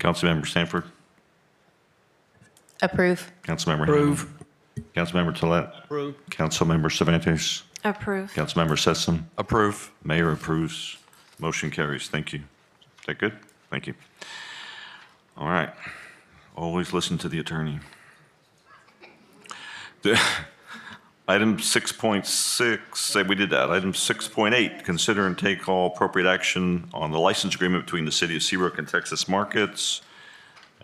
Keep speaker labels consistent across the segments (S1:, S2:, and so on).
S1: Councilmember Sanford,
S2: Approve.
S1: Councilmember Hammond,
S3: Approve.
S1: Councilmember Tolet. Approve. Councilmember Cervantes,
S2: Approve.
S1: Councilmember Sessom,
S3: Approve.
S1: Mayor approves. Motion carries. Thank you. Is that good? Thank you. All right. Always listen to the attorney. The- Item 6.6, say we did that. Item 6.8, consider and take all appropriate action on the license agreement between the City of Seabrook and Texas Markets.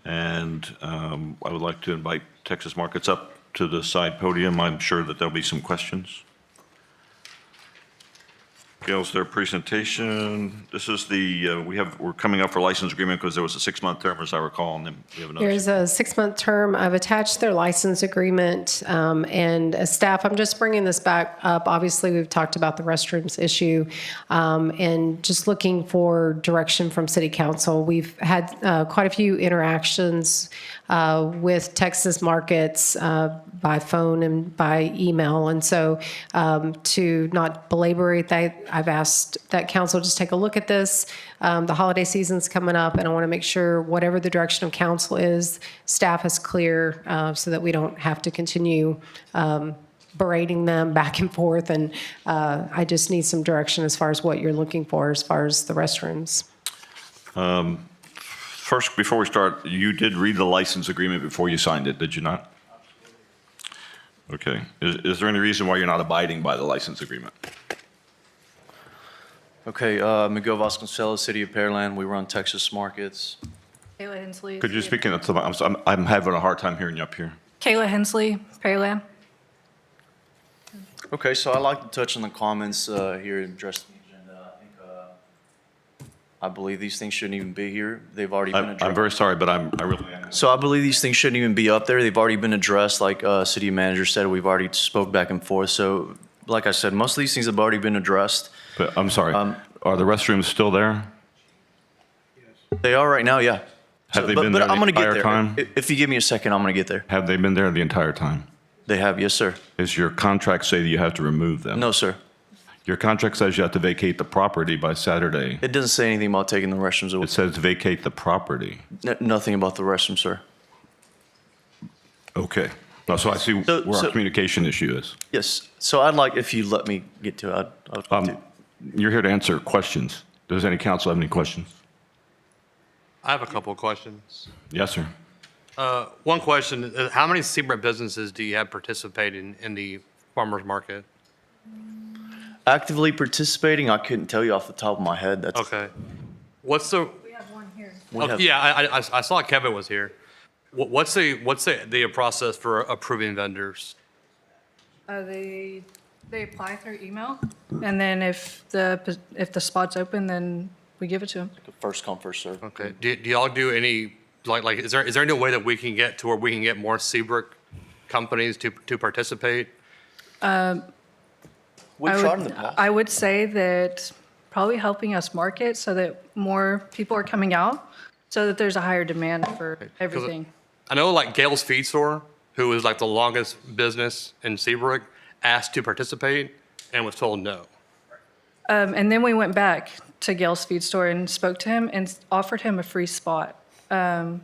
S1: And um, I would like to invite Texas Markets up to the side podium. I'm sure that there'll be some questions. Gail's their presentation. This is the, uh, we have, we're coming up for license agreement because there was a six-month term, as I recall, and then we have another.
S4: There's a six-month term. I've attached their license agreement um, and uh, staff. I'm just bringing this back up. Obviously, we've talked about the restrooms issue um, and just looking for direction from city council. We've had uh, quite a few interactions uh, with Texas markets uh, by phone and by email. And so um, to not belabor it, I- I've asked that council just take a look at this. Um, The holiday season's coming up, and I want to make sure whatever the direction of council is, staff is clear uh, so that we don't have to continue um, berating them back and forth. And uh, I just need some direction as far as what you're looking for, as far as the restrooms.
S1: First, before we start, you did read the license agreement before you signed it, did you not? Okay. Is, is there any reason why you're not abiding by the license agreement?
S5: Okay, uh, Miguel Vasconcelos, City of Pearland. We run Texas Markets.
S2: Kayla Hensley.
S1: Could you speak into the, I'm, I'm- I'm having a hard time hearing you up here.
S2: Kayla Hensley, Pearland.
S5: Okay, so I'd like to touch on the comments uh, here and address the agenda. I think, uh, I believe these things shouldn't even be here. They've already been
S1: I'm, I'm
S5: addressed.
S1: very sorry, but I'm, I really,
S5: So I believe these things shouldn't even be up there. They've already been addressed. Like uh, City Manager said, we've already spoke back and forth. So like I said, most of these things have already been addressed.
S1: but I'm sorry.
S5: Um,
S1: Are the restrooms still there?
S5: They are right now, yeah.
S1: Have
S5: So-
S1: they
S5: but-
S1: been
S5: but
S1: there the
S5: I'm gonna get
S1: entire
S5: there.
S1: time?
S5: If- If you give me a second, I'm going to get there.
S1: Have they been there the entire time?
S5: They have, yes, sir.
S1: Is your contract say that you have to remove them?
S5: No, sir.
S1: Your contract says you have to vacate the property by Saturday.
S5: It doesn't say anything about taking the restrooms away.
S1: It says vacate the property.
S5: N- Nothing about the restroom, sir.
S1: Okay. No, So I see
S5: So-
S1: where our
S5: so-
S1: communication issue is.
S5: Yes, so I'd like, if you let me get to it, I'd- I'd,
S1: Um, You're here to answer questions. Does any council have any questions?
S6: I have a couple of questions.
S1: Yes, sir.
S6: Uh, One question, uh, how many Seabrook businesses do you have participating in the farmer's market?
S5: actively participating, I couldn't tell you off the top of my head, that's.
S6: Okay. What's the,
S5: we
S6: oh,
S5: have-
S6: yeah, I, I- I I saw Kevin was here. Wha- What's the, what's the, the process for approving vendors?
S7: Uh, they, they apply through email, and then if the, pos- if the spot's open, then we give it to them.
S5: First come, first serve.
S6: Okay, do, do y'all do any, like, like, is there, is there any way that we can get to where we can get more Seabrook companies to, to participate?
S5: We've
S7: I
S5: tried in
S7: would-
S5: the past.
S7: I would say that probably helping us market so that more people are coming out, so that there's a higher demand for everything.
S6: I know like Gail's Feed Store, who is like the longest business in Seabrook, asked to participate and was told no.
S7: Um, and then we went back to Gail's Feed Store and spoke to him and s- offered him a free spot um,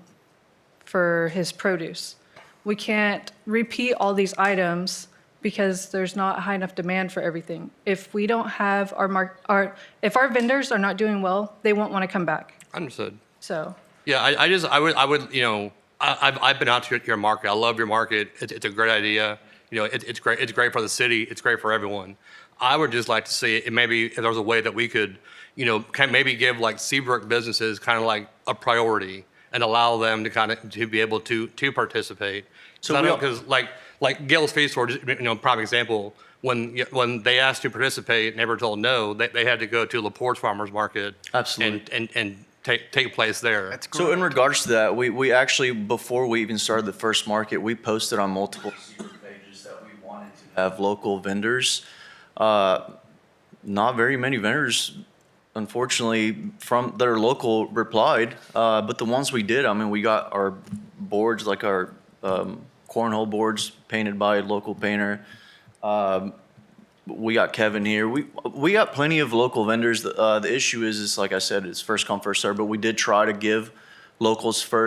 S7: for his produce. We can't repeat all these items because there's not high enough demand for everything. If we don't have our mark, our if our vendors are not doing well, they won't want to come back.
S6: Understood.
S7: So
S6: Yeah, I, I just, I would, I would, you know, I, I've, I've been out to your- your market. I love your market. It's, it's a great idea. You know, it, it's great. It's great for the city. It's great for everyone. I would just like to see it. Maybe if there was a way that we could, you know, can maybe give like Seabrook businesses kind of like a priority and allow them to kind of to be able to to participate. So
S5: So
S6: I
S5: we
S6: know
S5: are-
S6: because like like Gail's Feed Store, just, you know, prime example. When y- when they asked to participate, and they were told no. They, they had to go to Laporte Farmers Market.
S5: Absolutely.
S6: And and, and take take place there. That's
S5: So in regards to that, we, we actually, before we even started the first market, we posted on multiple pages that we wanted to have local vendors. Uh, Not very many vendors, unfortunately, from, that are local replied, uh, but the ones we did, I mean, we got our boards, like our um, cornhole boards painted by a local painter. we got Kevin here. We we got plenty of local vendors. The, uh, the issue is, is like I said, it's first come first serve. But we did try to give locals first.